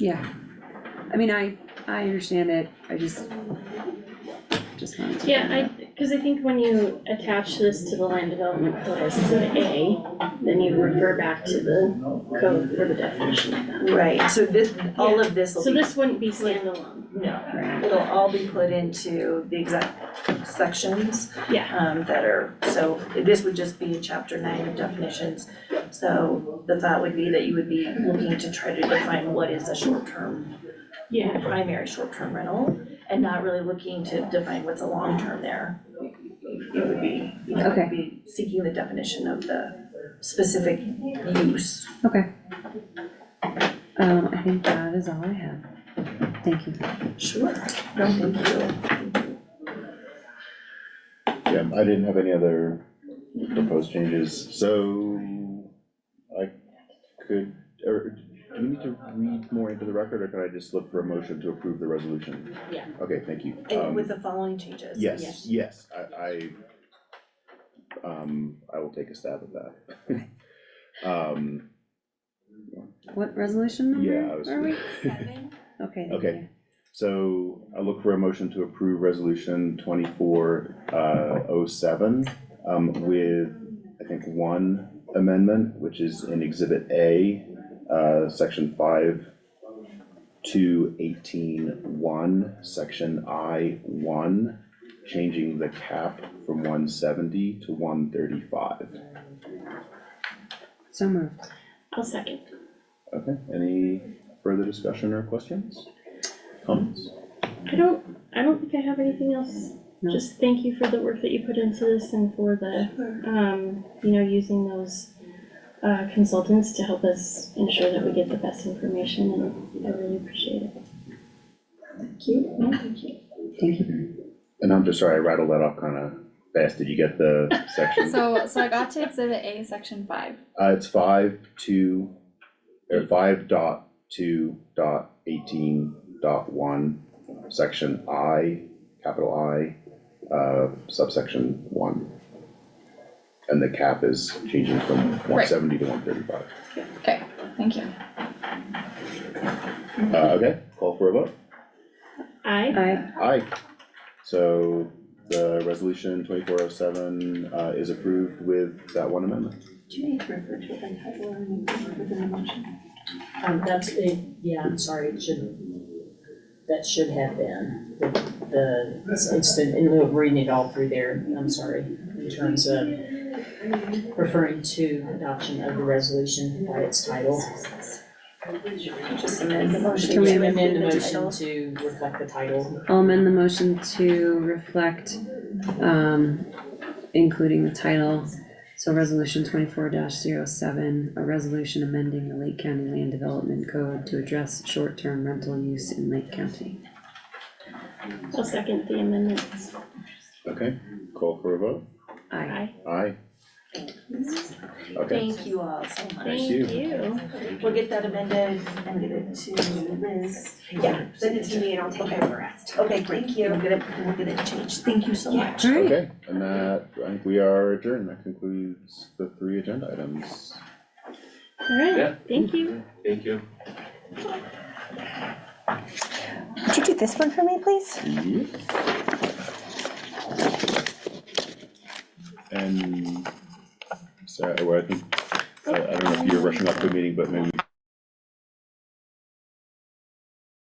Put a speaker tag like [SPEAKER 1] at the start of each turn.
[SPEAKER 1] Yeah, I mean, I, I understand it, I just, just wanted to. bring it
[SPEAKER 2] Yeah,
[SPEAKER 1] up.
[SPEAKER 2] I, cause I think when you attach this to the land development code as an A, then you refer back to the code for the definition of that.
[SPEAKER 3] Right, so this, all of this will
[SPEAKER 2] So
[SPEAKER 3] be,
[SPEAKER 2] this wouldn't be standalone.
[SPEAKER 3] no,
[SPEAKER 1] Right.
[SPEAKER 3] it'll all be put into the exact sections.
[SPEAKER 2] Yeah.
[SPEAKER 3] Um, that are, so this would just be chapter nine of definitions. So the thought would be that you would be looking to try to define what is a short-term,
[SPEAKER 2] Yeah.
[SPEAKER 3] primary short-term rental, and not really looking to define what's a long-term there. It would be, you know, it
[SPEAKER 1] Okay.
[SPEAKER 3] would be seeking the definition of the specific use.
[SPEAKER 1] Okay. Um, I think that is all I have, thank you.
[SPEAKER 3] Sure. No, thank you.
[SPEAKER 4] Yeah, I didn't have any other proposed changes, so I could, or do we need to read more into the record, or can I just look for a motion to approve the resolution?
[SPEAKER 2] Yeah.
[SPEAKER 4] Okay, thank you.
[SPEAKER 3] And
[SPEAKER 4] Um,
[SPEAKER 3] with the following changes.
[SPEAKER 4] Yes, yes, I, I, um, I will take a stab at that. Um,
[SPEAKER 1] What resolution
[SPEAKER 4] yeah, I
[SPEAKER 1] number
[SPEAKER 4] was.
[SPEAKER 1] are we? Okay, thank
[SPEAKER 4] Okay.
[SPEAKER 1] you.
[SPEAKER 4] So I look for a motion to approve resolution twenty-four, uh, oh seven, um, with, I think, one amendment, which is in exhibit A, uh, section five, two eighteen one, section I one, changing the cap from one seventy to one thirty-five.
[SPEAKER 1] So moved.
[SPEAKER 2] I'll second.
[SPEAKER 4] Okay, any further discussion or questions? Comments?
[SPEAKER 2] I don't, I don't think I have anything else.
[SPEAKER 1] No.
[SPEAKER 2] Just thank you for the work that you put into this and for the, um, you know, using those uh, consultants to help us ensure that we get the best information and I really appreciate it.
[SPEAKER 1] Thank you.
[SPEAKER 4] And I'm just sorry, I rattled that off kinda fast, did you get the section?
[SPEAKER 5] So, so I got to exhibit A, section five.
[SPEAKER 4] Uh, it's five two, or five dot two dot eighteen dot one, section I, capital I, uh, subsection one. And the cap is changing from one seventy to one thirty-five.
[SPEAKER 5] Okay, thank you.
[SPEAKER 4] Uh, okay, call for a vote.
[SPEAKER 2] Aye.
[SPEAKER 1] I,
[SPEAKER 4] Aye. So the resolution twenty-four oh seven, uh, is approved with that one amendment.
[SPEAKER 3] Do you need to refer to it by title or within the motion?
[SPEAKER 6] Um, that's, a- yeah, I'm sorry, it should, that should have been, the, the, it's- it's the, in lieu of reading it all through there, I'm sorry, in terms of referring to adoption of the resolution by its title.
[SPEAKER 3] Just amend the motion.
[SPEAKER 1] Can we
[SPEAKER 3] to
[SPEAKER 6] To amend the
[SPEAKER 3] include
[SPEAKER 6] motion
[SPEAKER 3] title?
[SPEAKER 6] to reflect the title.
[SPEAKER 1] I'll amend the motion to reflect, um, including the title. So resolution twenty-four 7 a resolution amending the Lake County Land Development Code to address short-term rental use in Lake County.
[SPEAKER 2] I'll second the amendments.
[SPEAKER 4] Okay, call for a vote.
[SPEAKER 1] Aye.
[SPEAKER 2] Aye.
[SPEAKER 4] Aye. Okay,
[SPEAKER 3] Thank you all so much.
[SPEAKER 4] Thank you.
[SPEAKER 3] We'll get that amended and get it to Liz. Yeah, send it to me and I'll take care of the rest. Okay, great. Thank you. We'll get it, we'll get it changed. Thank you so much.
[SPEAKER 1] All right,
[SPEAKER 4] okay, and that, I think we are adjourned, that concludes the three agenda items.
[SPEAKER 2] All right,
[SPEAKER 7] Yeah.
[SPEAKER 2] thank you.
[SPEAKER 7] Thank you.
[SPEAKER 8] Could you do this one for me, please?
[SPEAKER 4] Yep. And, sorry, well, I think, I I don't know if you're rushing up to a meeting, but maybe